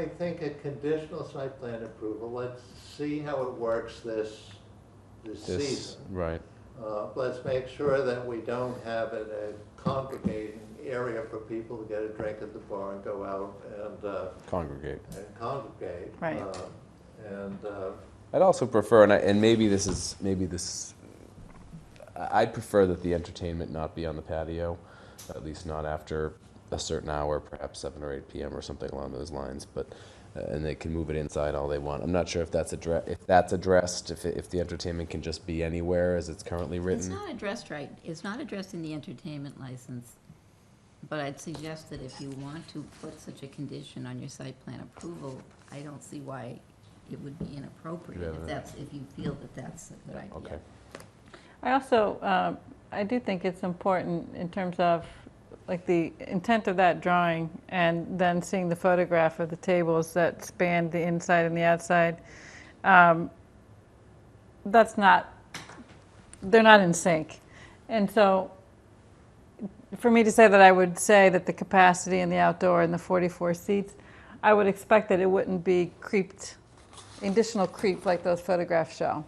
I think a conditional site plan approval, let's see how it works this, this This- season. Right, Uh, Let's make sure that we don't have it a congregating area for people to get a drink at the bar and go out and, uh, congregate. and congregate. Right. Uh, And, uh, I'd also prefer, and, I, and maybe this is maybe this. I- I'd prefer that the entertainment not be on the patio, at least not after a certain hour, perhaps seven or eight p.m. or something along those lines. But uh, and they can move it inside all they want. I'm not sure if that's addre- if that's addressed. If, it, if the entertainment can just be anywhere as it's currently It's written. not addressed right, it's not addressed in the entertainment license, but I'd suggest that if you want to put such a condition on your site plan approval, I don't see why it would be inappropriate Yeah. if that's, if you feel that that's a good Okay. idea. I also, uh, I do think it's important in terms of, like, the intent of that drawing, and then seeing the photograph of the tables that span the inside and the outside. um, That's not, they're not in sync. And so, for me to say that I would say that the capacity in the outdoor and the 44 seats, I would expect that it wouldn't be creeped, additional creep like those photographs show.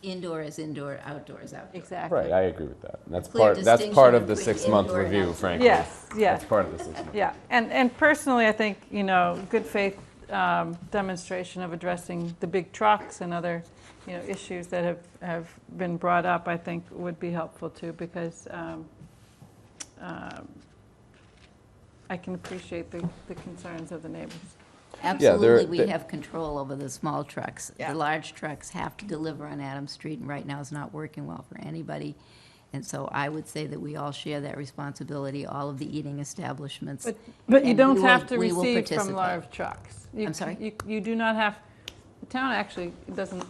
Indoor is indoor, outdoor is outdoor. Exactly. Right, I agree with that. And that's Clear part. That's part distinction of the between six-month indoor and review, outdoor. frankly. Yes, yes, That's part of the six-month. yeah. And, and personally, I think, you know, good faith um, demonstration of addressing the big trucks and other, you know, issues that have, have been brought up, I think would be helpful too, because um, um, I can appreciate the, the concerns of the neighbors. Absolutely, there- we there- have control over the small trucks. The large trucks have to deliver on Adams Street, and right now it's not working well for anybody. And so I would say that we all share that responsibility, all of the eating establishments. But you and we don't will- have to we will receive from participate. large trucks. You I'm c- sorry? You, you do not have, the town actually doesn't,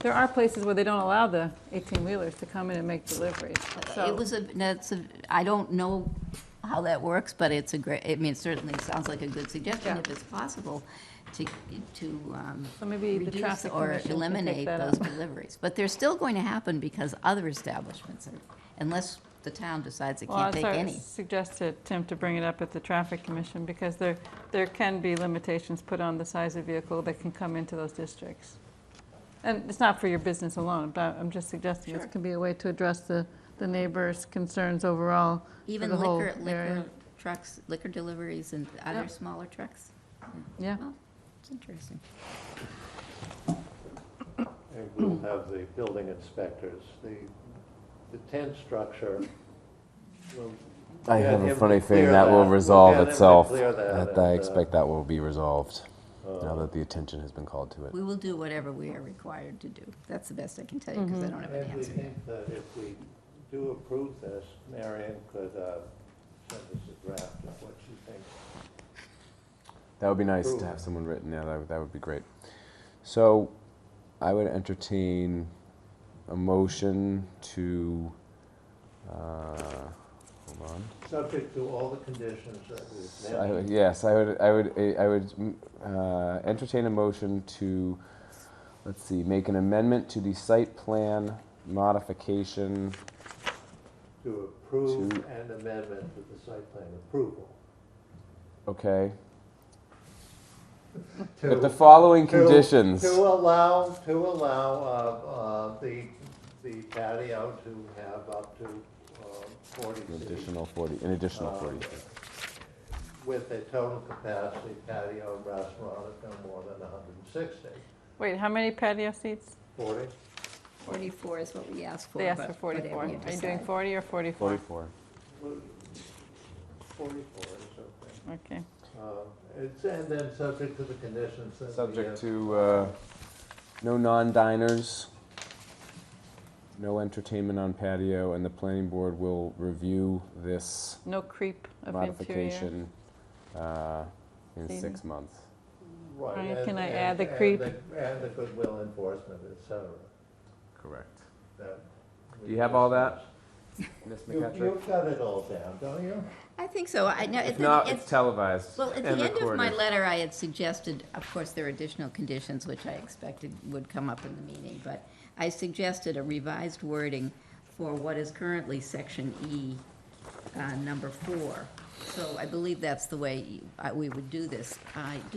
there are places where they don't allow the 18-wheelers to come in and make deliveries, so. It was a, that's a, I don't know how that works, but it's a great, I mean, it certainly sounds like a good suggestion Yeah. if it's possible to, to um, So maybe the reduce traffic commission can Or take eliminate that those up. deliveries. But they're still going to happen because other establishments are, unless the town decides it Well, I was can't take sorry, any. suggested, Tim, to bring it up at the traffic commission, because there, there can be limitations put on the size of vehicle that can come into those districts. And it's not for your business alone, but I'm just suggesting this Sure. can be a way to address the, the neighbors' concerns overall for the Even whole liquor, area. liquor trucks, liquor deliveries and other Yep. smaller trucks. Yeah, Well, it's interesting. and we'll have the building inspectors, the, the tent structure. will- I Yeah, have they a have funny to clear feeling that that. will Yeah, resolve they have to itself. clear that That I and, uh, expect that will be resolved now that the attention has been called to it. We will do whatever we are required to do. That's the best I can tell you because Mm-hmm. I don't have an And we answer. think that if we do approve this, Marion could uh, send us a draft of what she thinks That would be nice Cool. to have someone written. Yeah, that would, that would be great. So, I would entertain a motion to. Uh, hold on. Subject to all the conditions that we've I would- mentioned. yes, I would. I would. I would mm, uh, entertain a motion to, let's see, make an amendment to the site plan modification. to approve To- an amendment to the site plan approval. Okay, To- with the following to- conditions. To allow, to allow uh, uh, the, the patio to have up to uh, forty An seats. additional 40, an additional uh, 40. With a total capacity patio and restaurant of no more than hundred and sixty. wait, how many patio seats? Forty? Forty-four is what we asked for. They asked but for 44. whatever Are you you doing decide. 40 or 44? 44. Forty-four is Okay, okay. Uh, It's, and then subject to the conditions that we Subject have- to uh, no non-diners, no entertainment on patio, and the planning board will review this no creep of interior. modification uh, in Season. six months. Right. Brian, and- can I and- add the and creep? And the goodwill enforcement, et cetera. Correct. that we Do you have all that, discussed. Ms. You- McCutcheon? You've got it all down, don't you? I think so. I know. If not, it's televised Well, at the and end of my recorded. letter, I had suggested, of course, there are additional conditions which I expected would come up in the meeting, but I suggested a revised wording for what is currently section E, uh, number four, So I believe that's the way you- I- we would uh, do this. I do